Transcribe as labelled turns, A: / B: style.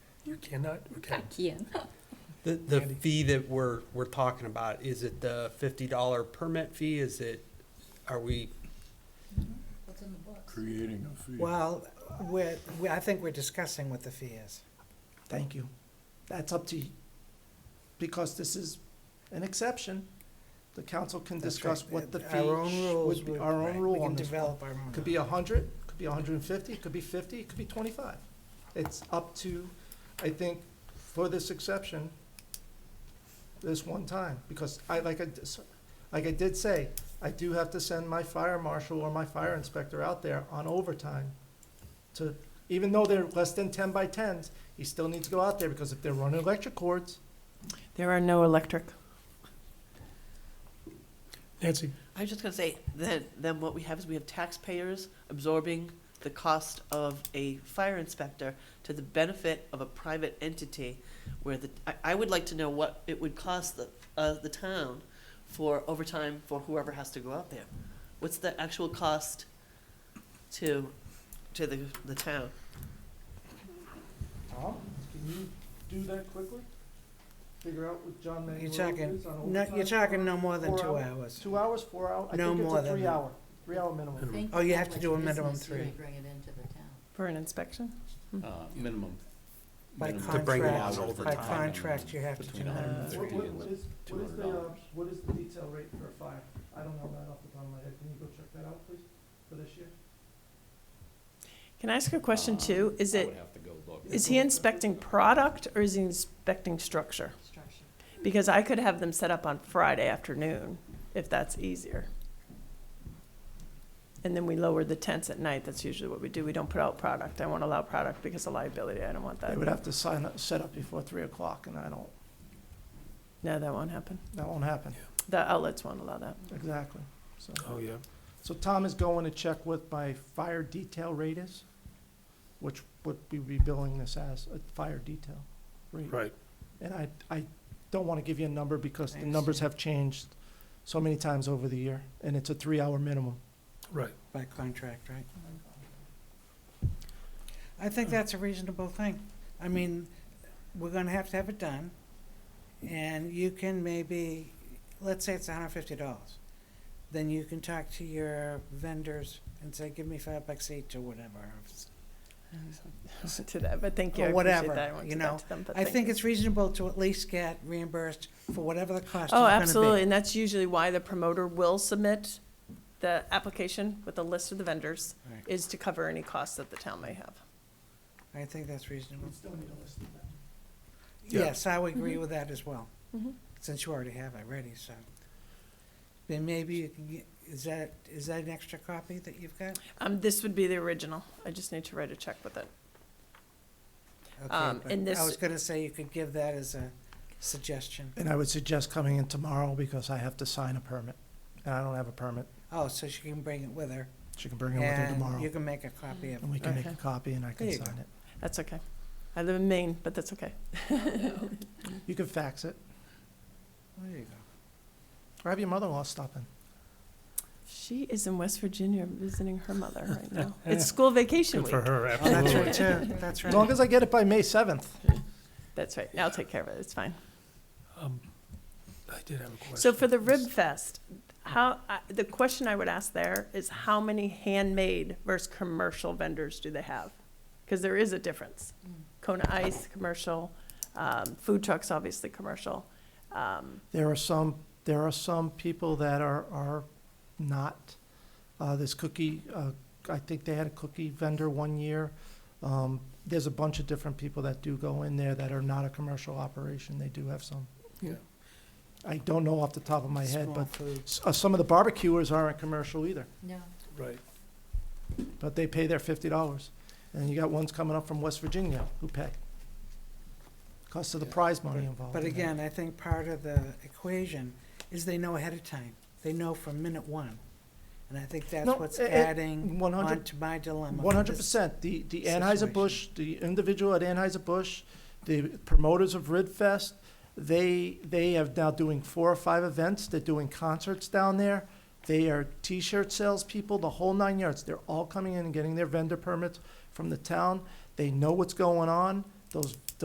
A: You cannot, okay.
B: I can.
C: The, the
A: Andy?
C: fee that we're, we're talking about, is it the fifty dollar permit fee? Is it, are we,
D: What's in the books?
E: creating a fee.
F: Well, we're, we- I think we're discussing what the fee is.
G: Thank you. That's up to you. Because this is an exception, the council can
F: That's
G: discuss
F: right.
G: what the fee
F: Our own
G: sh-
F: rules
G: would be,
F: would-
G: our
F: right,
G: own rule
F: We
G: on
F: can
G: this.
F: develop our own.
G: Could be a hundred, could be a hundred and fifty, could be fifty, could be twenty-five. It's up to, I think, for this exception, this one time, because I, like I, dis- like I did say, I do have to send my fire marshal or my fire inspector out there on overtime to, even though they're less than ten by tens, he still needs to go out there, because if they're running electric cords,
H: There are no electric.
A: Nancy,
I: I was just gonna say, then, then what we have is we have taxpayers absorbing the cost of a fire inspector to the benefit of a private entity where the, I, I would like to know what it would cost the, uh, the town for overtime for whoever has to go out there. What's the actual cost to, to the, the town?
G: Tom, can you do that quickly? Figure out what John
F: You're
G: Manganiello
F: talking,
G: is on
F: no,
G: overtime?
F: you're talking no more than
G: Four
F: two
G: hours.
F: hours.
G: Two hours, four hours? I
F: No
G: think it's
F: more
G: a
F: than
G: three
F: that.
G: hour, three hour minimum.
D: Think
F: Oh, you
D: how
F: have to
D: much
F: do a minimum
D: business you
F: three.
D: would Bring it into the town.
H: For an inspection?
J: uh, minimum.
F: By
J: minimum
C: to bring them
F: contract,
C: out over
F: by
C: time.
F: contract, you have to do
J: Between
F: minimum.
H: Uh,
G: What,
J: 130
G: what
J: and
G: what is, what is the, uh,
J: $200.
G: what is the detail rate for a fire? I don't know that off the top of my head. Can you go check that out, please, for this year?
H: Can I ask a question
J: um,
H: too? Is
J: I would
H: it,
J: have to go look.
H: is he inspecting product or is he inspecting structure?
D: Structure.
H: Because I could have them set up on Friday afternoon, if that's easier. And then we lower the tents at night, that's usually what we do, we don't put out product, I won't allow product because of liability, I don't want
G: They
H: that.
G: would have to sign up, set up before three o'clock, and I don't,
H: No, that won't happen,
G: that won't happen.
H: the outlets won't allow that.
G: Exactly, so.
A: oh, yeah.
G: So Tom is going to check what my fire detail rate is, which would we be billing this as, a fire detail rate.
A: Right.
G: And I, I don't want to give you a number because the
F: Thanks.
G: numbers have changed so many times over the year, and it's a three-hour minimum.
A: Right.
F: By contract, right? I think that's a reasonable thing. I mean, we're gonna have to have it done, and you can maybe, let's say it's hundred fifty dollars. Then you can talk to your vendors and say, give me five bucks each or whatever.
H: To that, but thank you, I
F: Or
H: appreciate
F: whatever,
H: that, I won't
F: you
H: do
F: know.
H: that to them, but
F: I
H: thank
F: think
H: you.
F: it's reasonable to at least get reimbursed for whatever the cost is
H: Oh,
F: gonna be.
H: absolutely, and that's usually why the promoter will submit the application with a list of the vendors,
F: Right.
H: is to cover any costs that the town may have.
F: I think that's reasonable.
G: still need a list of that.
A: Yeah.
F: Yes, I would
H: Mm-hmm.
F: agree with that as well,
H: Mhm.
F: since you already have it ready, so. Then maybe you can get, is that, is that an extra copy that you've got?
H: Um, this would be the original, I just need to write a check with it.
F: Okay,
H: Um,
F: but
H: and this-
F: I was gonna say you could give that as a suggestion.
G: And I would suggest coming in tomorrow because I have to sign a permit, and I don't have a permit.
F: Oh, so she can bring it with her,
G: She can bring it with her
F: and you
G: tomorrow,
F: can make a copy of it.
G: and we can make a
H: Okay.
G: copy and I can
F: There you
G: sign it.
H: That's okay. I live in Maine, but that's okay.
G: You can fax it,
F: Oh, There you go.
G: or have your mother-in-law stop in.
H: She is in West Virginia visiting her mother right now. It's school vacation
A: Good for
H: week.
A: her,
F: Oh, that's
A: absolutely.
F: right, too, that's
G: As long
F: right.
G: as I get it by May seventh.
H: That's right. I'll take care of it. It's fine.
A: Um, I did have a question.
H: So for the Rib Fest, how, I the question I would ask there is how many handmade versus commercial vendors do they have? Because there is a difference.
D: Mm.
H: Kona Ice, commercial, um, food trucks, obviously, commercial. Um,
G: There are some, there are some people that are, are not, uh, this cookie, uh, I think they had a cookie vendor one year. Um, there's a bunch of different people that do go in there that are not a commercial operation, they do have some.
A: Yeah.
G: I don't know off the top of my head,
F: Small
G: but
F: food.
G: s- uh, some of the barbecuers aren't commercial either,
D: No,
A: Right.
G: but they pay their fifty dollars. And you got ones coming up from West Virginia who pay. Cost of the prize money involved.
F: But
G: in that.
F: again, I think part of the equation is they know ahead of time, they know from minute one. And I think that's
G: No,
F: what's
G: it- it-
F: adding
G: 100
F: onto my dilemma.
G: One hundred
F: This-
G: percent. The, the Anheuser-Busch, the individual at Anheuser-Busch, the promoters of Ridfest, they, they have now doing four or five events. They're doing concerts down there. They are T-shirt salespeople, the whole nine yards. They're all coming in and getting their vendor permits from the town. They know what's going on. Those